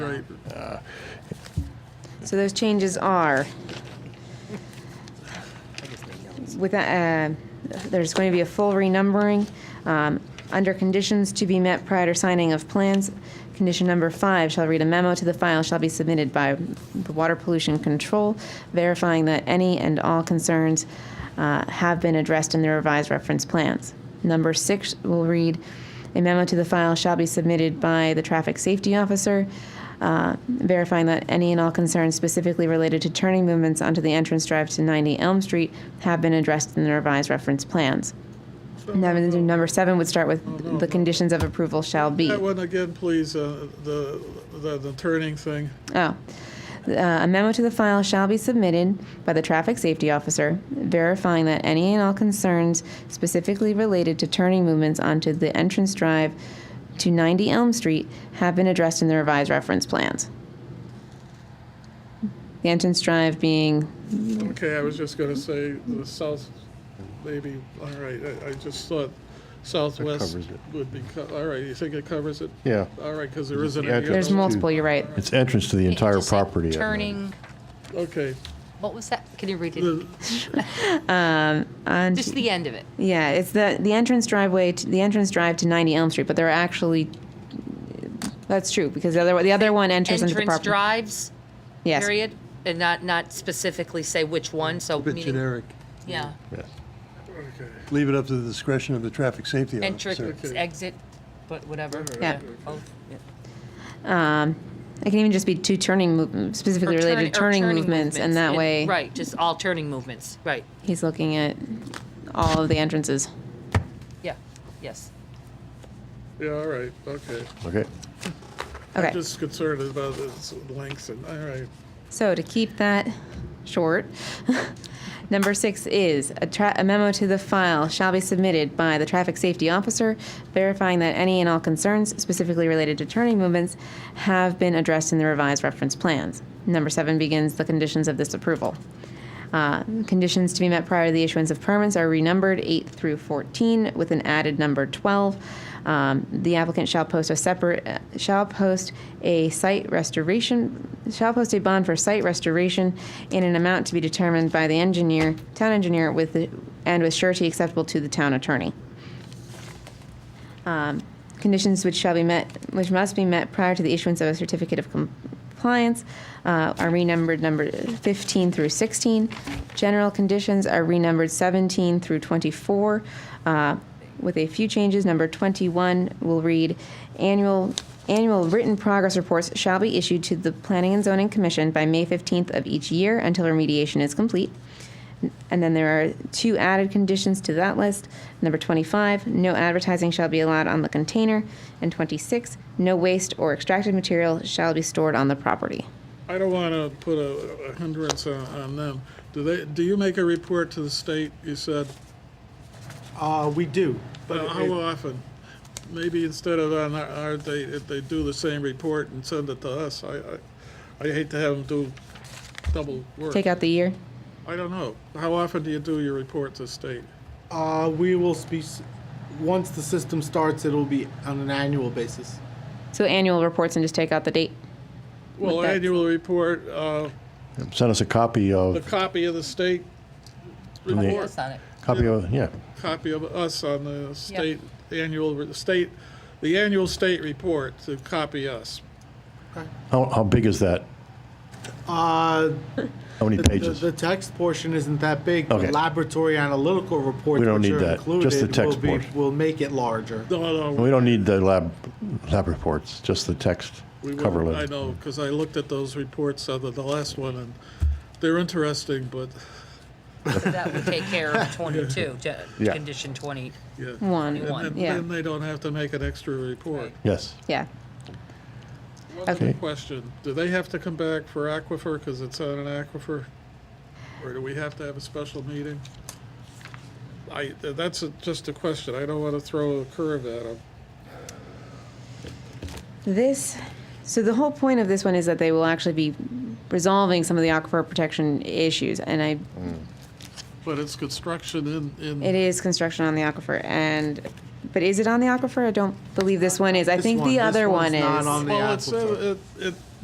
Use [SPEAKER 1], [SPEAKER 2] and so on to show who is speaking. [SPEAKER 1] paper.
[SPEAKER 2] So those changes are, with, uh, there's going to be a full renumbering, um, under conditions to be met prior to signing of plans. Condition number five shall read a memo to the file shall be submitted by the Water Pollution Control verifying that any and all concerns, uh, have been addressed in the revised reference plans. Number six will read, a memo to the file shall be submitted by the traffic safety officer, uh, verifying that any and all concerns specifically related to turning movements onto the entrance drive to 90 Elm Street have been addressed in the revised reference plans. Number number seven would start with the conditions of approval shall be.
[SPEAKER 1] That one again, please, uh, the, the the turning thing.
[SPEAKER 2] Oh. Uh, a memo to the file shall be submitted by the traffic safety officer verifying that any and all concerns specifically related to turning movements onto the entrance drive to 90 Elm Street have been addressed in the revised reference plans. The entrance drive being,
[SPEAKER 1] Okay, I was just going to say the south, maybe, all right, I- I just thought southwest
[SPEAKER 3] covers it.
[SPEAKER 1] would be, co- all right, you think it covers it?
[SPEAKER 3] Yeah.
[SPEAKER 1] All right, because there isn't
[SPEAKER 3] The
[SPEAKER 1] any.
[SPEAKER 3] entrance
[SPEAKER 2] there's
[SPEAKER 1] other-
[SPEAKER 2] multiple, you're right.
[SPEAKER 3] It's entrance to the entire
[SPEAKER 4] Just like
[SPEAKER 3] property. I believe.
[SPEAKER 4] Turning,
[SPEAKER 1] Okay,
[SPEAKER 4] what was that? Can you read it? Um,
[SPEAKER 1] the-
[SPEAKER 2] On-
[SPEAKER 4] Just the end of it.
[SPEAKER 2] Yeah, it's the, the entrance driveway, to, the entrance drive to 90 Elm Street, but there are actually, that's true, because the other, the other one enters into the
[SPEAKER 4] Entrance
[SPEAKER 2] property.
[SPEAKER 4] drives,
[SPEAKER 2] Yes.
[SPEAKER 4] period, and not, not specifically say which one, so.
[SPEAKER 5] A bit
[SPEAKER 4] meaning-
[SPEAKER 5] generic.
[SPEAKER 4] Yeah.
[SPEAKER 3] Yeah.
[SPEAKER 1] okay.
[SPEAKER 5] Leave it up to the discretion of the traffic safety
[SPEAKER 4] Entrance,
[SPEAKER 5] officer.
[SPEAKER 1] Okay.
[SPEAKER 4] exit, but whatever.
[SPEAKER 2] Yeah.
[SPEAKER 4] Both, yeah.
[SPEAKER 2] It can even just be two turning, mov- specifically
[SPEAKER 4] Or
[SPEAKER 2] related to
[SPEAKER 4] turn- or
[SPEAKER 2] turning movements, and that way,
[SPEAKER 4] Right, just all turning movements, right,
[SPEAKER 2] he's looking at all of the entrances.
[SPEAKER 4] yeah, yes.
[SPEAKER 1] Yeah, all right, okay.
[SPEAKER 3] Okay.
[SPEAKER 2] Okay,
[SPEAKER 1] Just concerned about its length and, all right.
[SPEAKER 2] so to keep that short, number six is, a tra- a memo to the file shall be submitted by the traffic safety officer verifying that any and all concerns specifically related to turning movements have been addressed in the revised reference plans. Number seven begins the conditions of this approval. Uh, Conditions to be met prior to the issuance of permits are renumbered 8 through 14 with an added number 12. Um, The applicant shall post a separate, uh, shall post a site restoration, shall post a bond for site restoration in an amount to be determined by the engineer, town engineer with, the- and with surety acceptable to the town attorney conditions which shall be met, which must be met prior to the issuance of a certificate of compliance uh, are renumbered number 15 through 16. General conditions are renumbered 17 through 24, uh, with a few changes. Number 21 will read, annual, annual written progress reports shall be issued to the Planning and Zoning Commission by May 15th of each year until remediation is complete. And then there are two added conditions to that list. Number 25, no advertising shall be allowed on the container. And 26, no waste or extracted material shall be stored on the property.
[SPEAKER 1] I don't want to put a a hindrance on, on them. Do they, do you make a report to the state, you said?
[SPEAKER 6] Uh, we do, but
[SPEAKER 1] Well,
[SPEAKER 6] it-
[SPEAKER 1] How often? Maybe instead of on our- our, they, if they do the same report and send it to us, I, I, I hate to have them do double work.
[SPEAKER 2] Take out the year.
[SPEAKER 1] I don't know. How often do you do your report to state?
[SPEAKER 6] uh, we will be, s- once the system starts, it'll be on an annual basis.
[SPEAKER 2] So annual reports and just take out the date.
[SPEAKER 1] Well,
[SPEAKER 2] that's-
[SPEAKER 1] annual report, uh,
[SPEAKER 3] Send us a copy
[SPEAKER 1] a
[SPEAKER 3] of,
[SPEAKER 1] copy of the state
[SPEAKER 3] the-
[SPEAKER 1] report,
[SPEAKER 4] Yes, on it.
[SPEAKER 3] copy of, yeah.
[SPEAKER 1] copy of us on the state, annual, re- state, the annual state report to copy us.
[SPEAKER 3] How, how big is that?
[SPEAKER 6] Uh,
[SPEAKER 3] How many
[SPEAKER 6] the,
[SPEAKER 3] pages?
[SPEAKER 6] the text portion isn't that big. The
[SPEAKER 3] Okay.
[SPEAKER 6] laboratory analytical reports,
[SPEAKER 3] We don't
[SPEAKER 6] which
[SPEAKER 3] need
[SPEAKER 6] are
[SPEAKER 3] that, just the
[SPEAKER 6] included,
[SPEAKER 3] text
[SPEAKER 6] will, be,
[SPEAKER 3] portion.
[SPEAKER 6] will make it larger.
[SPEAKER 1] No, no.
[SPEAKER 3] We don't need the lab, lab reports, just the text
[SPEAKER 1] We would-
[SPEAKER 3] cover
[SPEAKER 1] I
[SPEAKER 3] letter.
[SPEAKER 1] know, because I looked at those reports, other the last one, and they're interesting, but,
[SPEAKER 4] That would take care of 22, ge-
[SPEAKER 3] Yeah.
[SPEAKER 4] condition 20.
[SPEAKER 1] yeah.
[SPEAKER 2] One,
[SPEAKER 1] And
[SPEAKER 2] yeah.
[SPEAKER 1] then they don't have to make an extra report.
[SPEAKER 4] Right.
[SPEAKER 3] Yes.
[SPEAKER 2] yeah.
[SPEAKER 1] One other
[SPEAKER 3] Okay.
[SPEAKER 1] question, do they have to come back for aquifer, because it's on an aquifer? Or do we have to have a special meeting? I, that's a- just a question, I don't want to throw a curve at them.
[SPEAKER 2] This, so the whole point of this one is that they will actually be resolving some of the aquifer protection issues. And I
[SPEAKER 1] But it's construction in,
[SPEAKER 2] It
[SPEAKER 1] in,
[SPEAKER 2] is construction on the aquifer, and, but is it on the aquifer? I don't believe this one is. I
[SPEAKER 6] This
[SPEAKER 2] think
[SPEAKER 6] one-
[SPEAKER 2] the
[SPEAKER 6] this
[SPEAKER 2] other
[SPEAKER 6] one's
[SPEAKER 2] one is.
[SPEAKER 6] not on the
[SPEAKER 1] well, it's,
[SPEAKER 6] aquifer.
[SPEAKER 1] uh, it, it,